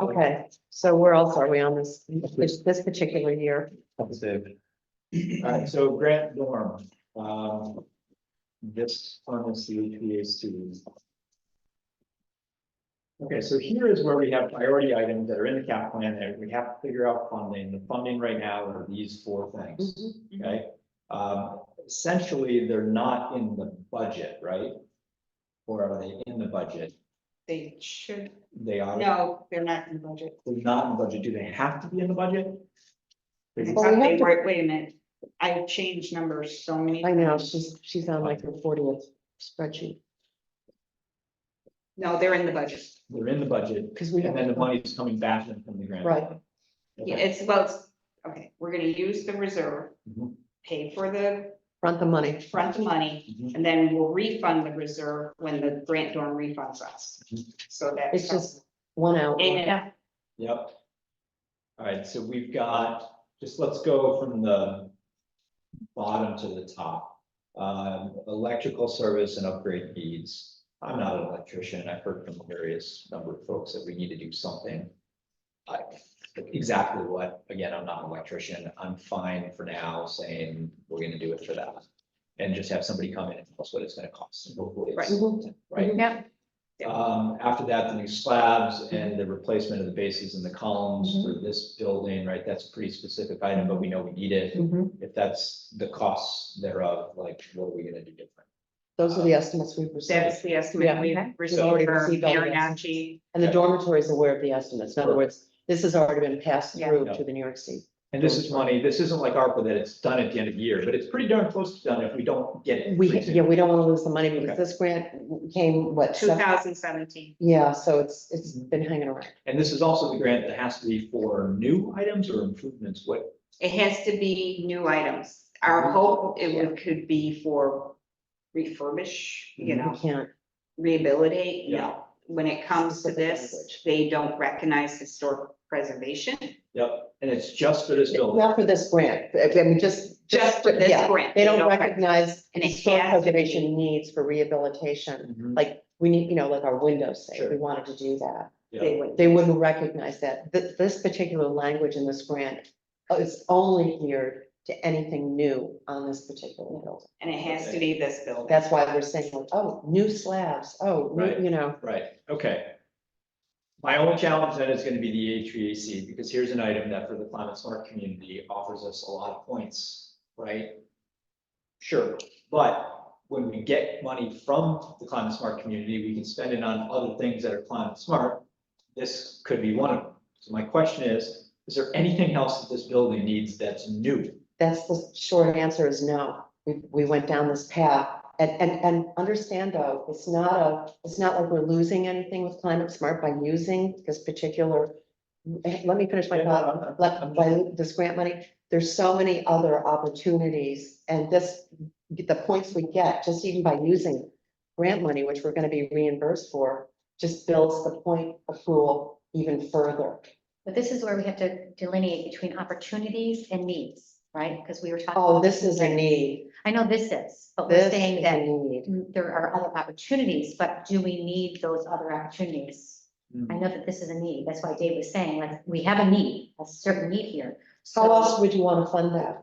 Okay, so where else are we on this, this this particular year? That's it. All right, so grant dorm, um, this one is the HVAC. Okay, so here is where we have priority items that are in the cap plan that we have to figure out funding. The funding right now are these four things, Mm-hmm. Mm-hmm. okay? Um, essentially, they're not in the budget, right? Or are they in the budget? They should, They are, they're no, they're not in the budget. not in the budget. Do they have to be in the budget? I Well, we thought they have to- were, wait a minute, I changed numbers so many. I know, she's, she's on like her fortieth spreadsheet, No, they're in the budget. They're in the budget. because we And then the have, money is coming back in from the grant. Right. Yeah, Okay. it's about, okay, we're gonna use the reserve, Mm-hmm. Mhm, pay for the front the money. front money, mhm. and then we'll refund the reserve when the grant dorm refunds us. Mm-hmm. So that's. It's just one out. And it- Yep. All right, so we've got, just let's go from the bottom to the top. Um, electrical service and upgrade needs. I'm not an electrician. I've heard from various number of folks that we need to do something. I, exactly what, again, I'm not an electrician. I'm fine for now saying we're gonna do it for that. And just have somebody come in and tell us what it's gonna cost. and hopefully it's- Right. Right? Yep, Um, after that, the new slabs and the replacement of the bases and the columns Mm-hmm. for this building, right, that's a pretty specific item, but we know we need it. Mhm. If that's the costs thereof, like, what are we gonna do different? Those are the estimates we've received, That's the estimate Yeah. we Okay. received for received all the estimates. Mariachi. and the dormitory is aware of the estimates, in other words, this has already been passed Yeah. through to the New York State. And this is money, this isn't like ARPA that it's done at the end of the year, but it's pretty darn close to done if we don't get it. We, pretty soon. yeah, we don't want to lose the money because Okay. this grant came, what? Two seven- thousand seventeen. Yeah, so it's, it's been hanging around. And this is also the grant that has to be for new items or improvements, what, It has to be new items. Our Mhm. hope, it would- could be for refurbish, you know, We can't, rehabilitate, Yeah. no. When it comes to Specific this, language. they don't recognize historic preservation, yep, and it's just for this building. not for this grant, I mean, just. just for this yeah. grant. They don't rec- recognize And it historic has to be. preservation needs for rehabilitation. Mhm, Like, we need, you know, like our windows say, we Sure. wanted to do that. yeah. They wouldn't. They wouldn't recognize that. This, this particular language in this grant is only geared to anything new on this particular building. And it has to be this building. That's why we're saying, like, oh, new slabs, oh, Right. new- you know, Right, okay. My only challenge then is gonna be the HVAC, because here's an item that for the climate smart community offers us a lot of points, right? Sure, but when we get money from the climate smart community, we can spend it on other things that are climate smart. This could be one of them. So my question is, is there anything else that this building needs that's new? that's the short answer is no. We, we went down this path. And, and, and understand though, it's not a, it's not like we're losing anything with climate smart by using this particular. Let me finish my Yeah, no, thought. I'm- I'm- like I'm- by this grant money, there's so many other opportunities and this, the points we get, just even by using grant money, which we're gonna be reimbursed for, just builds the point accrual even further. but this is where we have to delineate between opportunities and needs, right? Because we were talking. Oh, this is a need. I know this is, but This we're is saying a that need. mm, there are other opportunities, but do we need those other opportunities? I know that this is a need. That's why Dave was saying, like, we have a need, a certain need here. How else So would you wanuld fund that?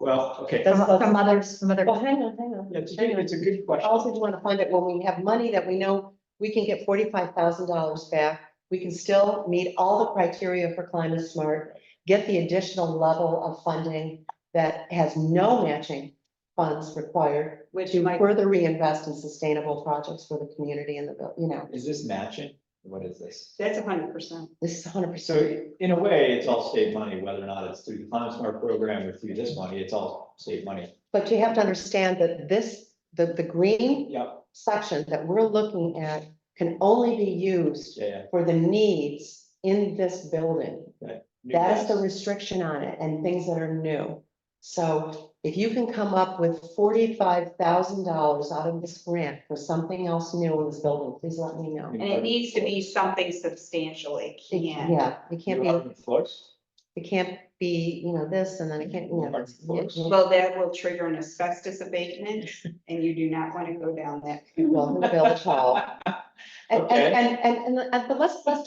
Well, okay, That's- from from others, from other, Well, hang on, hang on. yeah, it's a good, it's a good How else would question. you wanna fund it when we have money that we know we can get forty-five thousand dollars back? We can still meet all the criteria for climate smart, get the additional level of funding that has no matching funds required Which to might, further reinvest in sustainable projects for the community and the, vil- you know, Is this matching? What is this? that's hundred percent. this is hundred percent. So in a way, it's all state money, whether or not it's through the Climate Smart program or through this money, it's all state money. But you have to understand that this, the, the green Yep. section that we're looking at can only be used Yeah, yeah. for the needs in this building. That is the restriction on it and things that are new. So if you can come up with forty-five thousand dollars out of this grant for something else new in this building, please let me know. And it needs to be something substantial. It It- can't. Yeah, it can't be, Floors? it can't be, you know, this and then it can't, you know. it's- Well, Well, that will trigger an asbestos abatement and you do not want to go down that who built a hall? And, and, and, and, and, but let's, let's